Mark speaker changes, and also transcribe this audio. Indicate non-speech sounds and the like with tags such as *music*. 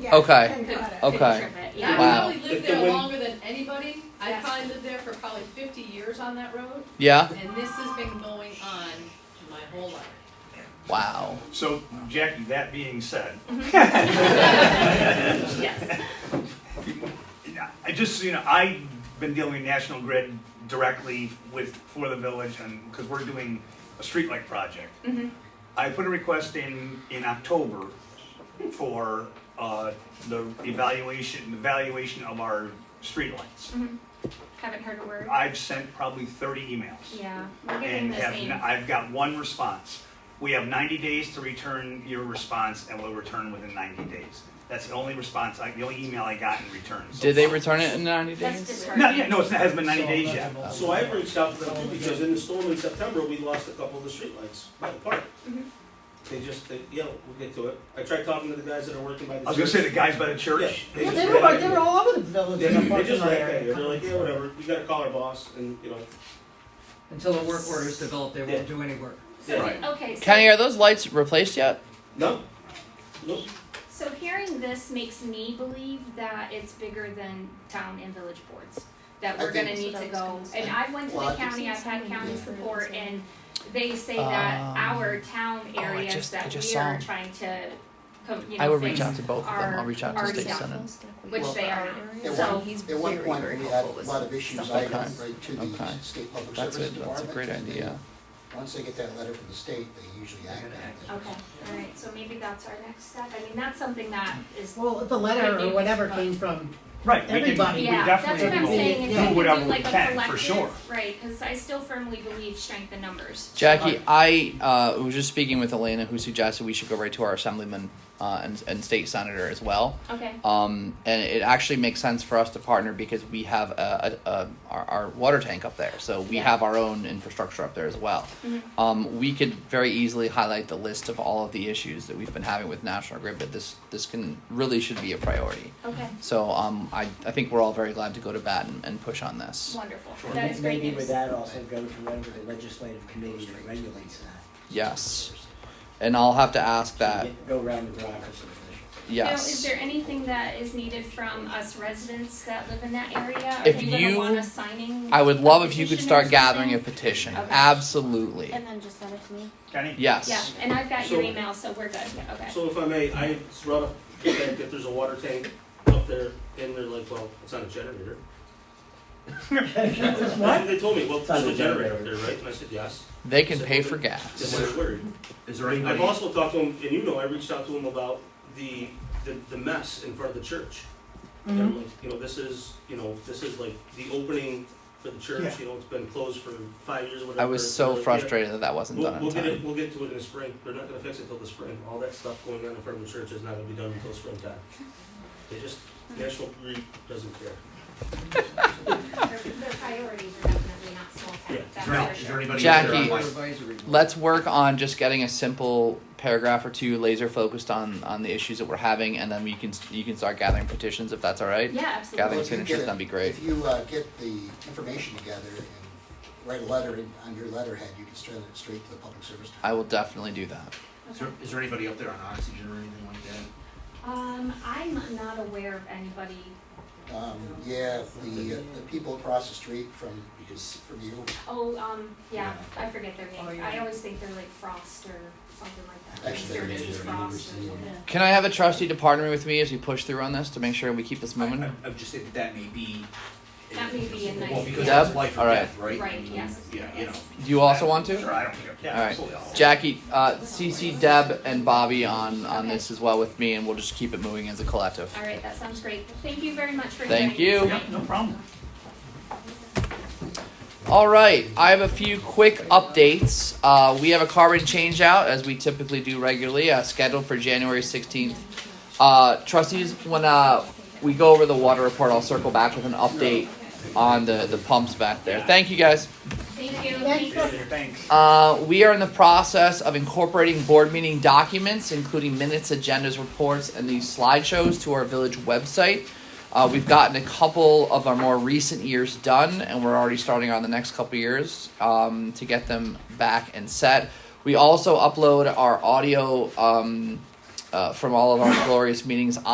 Speaker 1: Yeah,
Speaker 2: Okay.
Speaker 1: I got it.
Speaker 2: Okay.
Speaker 3: Yeah.
Speaker 2: Wow.
Speaker 4: I probably lived
Speaker 5: If the
Speaker 4: there
Speaker 5: wind-
Speaker 4: longer than anybody. I
Speaker 1: Yes.
Speaker 4: probably lived there for probably fifty years on that road,
Speaker 2: Yeah.
Speaker 4: and this has been going on my whole life.
Speaker 2: Wow.
Speaker 5: So, Jackie, that being said,
Speaker 3: Yes.
Speaker 5: I just, you know, I've been dealing with National Grid directly with, for the village and, because we're doing a streetlight project. I put a request in, in October for, uh, the evaluation, evaluation of our streetlights.
Speaker 3: Haven't heard a word.
Speaker 5: I've sent probably thirty emails.
Speaker 3: Yeah, we're getting
Speaker 5: and
Speaker 3: the
Speaker 5: have,
Speaker 3: same.
Speaker 5: n- I've got one response. We have 90 days to return your response, and we'll return within 90 days. That's the only response, I- the only email I got in return. so
Speaker 2: Did they
Speaker 5: far.
Speaker 2: return it in 90
Speaker 3: That's
Speaker 2: days?
Speaker 3: disheartening.
Speaker 5: No, yeah, no, it's- it hasn't been 90 days yet.
Speaker 6: So I reached out to them too, because in the storm in September, we lost a couple of the streetlights by the park. They just, they, yeah, we'll get to it. I tried talking to the guys that are working by the.
Speaker 5: I was gonna say the guys by the
Speaker 6: Yeah,
Speaker 5: church.
Speaker 6: they
Speaker 1: Well,
Speaker 6: just
Speaker 1: they were,
Speaker 6: laughed
Speaker 1: like-
Speaker 6: at
Speaker 1: they
Speaker 6: me.
Speaker 1: were all over the village.
Speaker 6: They
Speaker 1: in the
Speaker 6: they
Speaker 1: parking
Speaker 6: just
Speaker 1: lot
Speaker 6: laughed at me.
Speaker 1: area.
Speaker 6: They're like, yeah, whatever, we gotta call our boss and, you know.
Speaker 7: Until a work order is developed, they
Speaker 6: Yeah.
Speaker 7: won't do any work.
Speaker 6: yeah.
Speaker 3: Okay, so,
Speaker 2: Kenny, are those lights replaced yet?
Speaker 6: No, nope,
Speaker 3: so hearing this makes me believe that it's bigger than town and village boards. That
Speaker 1: I
Speaker 3: we're gonna
Speaker 1: think
Speaker 3: need
Speaker 1: that's
Speaker 3: to
Speaker 1: what I was
Speaker 3: go,
Speaker 1: gonna say.
Speaker 3: and I went to
Speaker 1: Well,
Speaker 3: the
Speaker 1: I think
Speaker 3: county, I've had county
Speaker 1: Yeah.
Speaker 3: support, and they say that
Speaker 2: Um,
Speaker 3: our town
Speaker 2: I
Speaker 3: areas
Speaker 2: just- I
Speaker 3: that
Speaker 2: just
Speaker 3: we
Speaker 2: saw
Speaker 3: are
Speaker 2: 'em.
Speaker 3: trying to, co- you
Speaker 2: I
Speaker 3: know,
Speaker 2: would reach
Speaker 3: fix.
Speaker 2: out to both of them. I'll reach out to
Speaker 3: Our
Speaker 2: State
Speaker 3: staff.
Speaker 2: Senate.
Speaker 3: Which
Speaker 1: Well,
Speaker 3: they are.
Speaker 1: At
Speaker 3: So
Speaker 1: one, at one point, we had a lot of issues, I
Speaker 2: like that.
Speaker 1: right to the
Speaker 2: Okay.
Speaker 1: state public
Speaker 2: That's a,
Speaker 1: service
Speaker 2: that's a
Speaker 1: department.
Speaker 2: great
Speaker 1: and they-
Speaker 2: idea.
Speaker 1: Once they get that letter from the state, they usually act on it.
Speaker 3: Okay, all right, so maybe that's our next step. I mean, that's something that is,
Speaker 1: Well, the letter or whatever came from,
Speaker 5: Right, we can, we
Speaker 1: Everybody.
Speaker 3: yeah, that's
Speaker 5: definitely
Speaker 3: what I'm
Speaker 5: will
Speaker 3: saying.
Speaker 5: do
Speaker 3: If we
Speaker 5: whatever
Speaker 3: could do
Speaker 5: we
Speaker 3: like a
Speaker 5: can, for
Speaker 3: collective-
Speaker 5: sure.
Speaker 3: Right, because I still firmly believe strength in numbers.
Speaker 2: Jackie, I uh, was just speaking with Elena, who suggested we should go right to our assemblyman uh, and, and state senator as well.
Speaker 3: Okay,
Speaker 2: Um, and it actually makes sense for us to partner because we have a, a, a our, our water tank up there, so we
Speaker 3: Yeah.
Speaker 2: have our own infrastructure up there as well.
Speaker 3: Mhm.
Speaker 2: Um, we could very easily highlight the list of all of the issues that we've been having with National Grid, but this this can really should be a priority.
Speaker 3: okay,
Speaker 2: So um, I, I think we're all very glad to go to bat and, and push on this.
Speaker 3: wonderful.
Speaker 8: And
Speaker 3: That is great
Speaker 8: Maybe
Speaker 3: news.
Speaker 8: with that also go to whatever the legislative committee that regulates that.
Speaker 2: Yes, and I'll have to ask that.
Speaker 8: Get- Go around the bureaucracy.
Speaker 3: Now, is
Speaker 2: Yes.
Speaker 3: there anything that is needed from us residents that live in that area?
Speaker 2: If
Speaker 3: Are they gonna
Speaker 2: you-
Speaker 3: want us signing?
Speaker 2: I would love if you could
Speaker 3: petition or
Speaker 2: start gathering a
Speaker 3: something?
Speaker 2: petition.
Speaker 3: Okay.
Speaker 2: Absolutely.
Speaker 9: And then just send it to me.
Speaker 5: Kenny?
Speaker 2: Yes.
Speaker 3: Yeah, and I've got your
Speaker 6: So-
Speaker 3: email, so we're good, okay.
Speaker 6: so if I may, I brought up the fact that there's a water tank up there, and they're like, well, it's not a generator. That's They told me, well,
Speaker 8: not
Speaker 6: there's
Speaker 8: a
Speaker 6: a generator up
Speaker 8: generator.
Speaker 6: there, right? And I said, yes.
Speaker 2: They can pay for gas.
Speaker 6: That's what I worried.
Speaker 5: Is there
Speaker 6: I've also talked to him, and you know, I reached out to him about the, the, the mess in front of the church. And I'm like, you know, this is, you know, this is like the opening for the church, you know, it's been closed for five years, whatever.
Speaker 2: I was so
Speaker 6: They're like, "Yeah,
Speaker 2: frustrated that that wasn't
Speaker 6: We'll,
Speaker 2: done in
Speaker 6: we'll get it,
Speaker 2: time.
Speaker 6: we'll get to it in the spring, they're not gonna fix it till the spring, all that stuff going on in front of the church is not gonna be done until springtime. They just, National Grid doesn't care.
Speaker 3: Their their priorities are definitely not small town,
Speaker 6: Yeah.
Speaker 3: that's
Speaker 5: Now,
Speaker 3: for
Speaker 5: is
Speaker 3: sure.
Speaker 5: there anybody out there
Speaker 2: Jackie.
Speaker 5: online?
Speaker 7: Supervisory board.
Speaker 2: Let's work on just getting a simple paragraph or two laser focused on on the issues that we're having, and then we can you can start gathering petitions if that's all right.
Speaker 3: Yeah,
Speaker 2: Gathering
Speaker 3: absolutely.
Speaker 1: Well, if you
Speaker 2: signatures,
Speaker 1: get it-
Speaker 2: that'd be great.
Speaker 1: If you uh, get the information together and write a letter in- on your letterhead, you can send it straight to the public service. department.
Speaker 2: I will definitely do that.
Speaker 5: Is there- Is there anybody up there on oxygen or anything like that?
Speaker 3: Um, I'm not aware of anybody.
Speaker 1: Um, yeah, the, uh, the people across the street from, from you,
Speaker 3: Oh, um, yeah, I forget their
Speaker 7: Oh,
Speaker 3: name.
Speaker 7: yeah.
Speaker 3: I always think they're like Frost or something like that.
Speaker 1: Actually,
Speaker 3: Sir
Speaker 1: they're-
Speaker 3: Mrs.
Speaker 1: they're
Speaker 3: Frost or
Speaker 1: neighbors,
Speaker 3: something.
Speaker 2: Can I have a trustee to partner with me as we push through on this to make sure we keep this moving?
Speaker 10: I- I've just said that that may be.
Speaker 3: That may be a
Speaker 10: Well,
Speaker 3: nice-
Speaker 10: because
Speaker 2: Deb?
Speaker 10: it's life or
Speaker 2: Alright.
Speaker 10: death, right? Mm-hmm.
Speaker 3: Right, yes,
Speaker 10: Yeah, you know.
Speaker 3: yes.
Speaker 2: Do you also want
Speaker 5: Sure,
Speaker 2: to?
Speaker 5: I don't care. Yeah,
Speaker 2: All right.
Speaker 5: absolutely, I'll-
Speaker 2: Jackie, uh, CC Deb and Bobby on on this as well with me, and we'll just keep it moving as a collective.
Speaker 3: All right, that sounds great. Thank you very much for
Speaker 2: Thank
Speaker 3: joining us
Speaker 2: you.
Speaker 3: tonight.
Speaker 5: Yep,
Speaker 3: *laughs*
Speaker 5: no problem.
Speaker 2: All right, I have a few quick updates. Uh, we have a carbon change out as we typically do regularly, uh, scheduled for January 16th. Uh, trustees, when uh, we go over the water report, I'll circle back with an update on the, the pumps back there. Thank you guys.
Speaker 3: Thank you.
Speaker 9: Thank
Speaker 3: Thanks.
Speaker 5: Thanks.
Speaker 2: Uh, we are in the process of incorporating board meeting documents, including minutes, agendas, reports, and these slideshows to our village website. Uh, we've gotten a couple of our more recent years done, and we're already starting on the next couple years um, to get them back and set. We also upload our audio um, uh, from all of our glorious meetings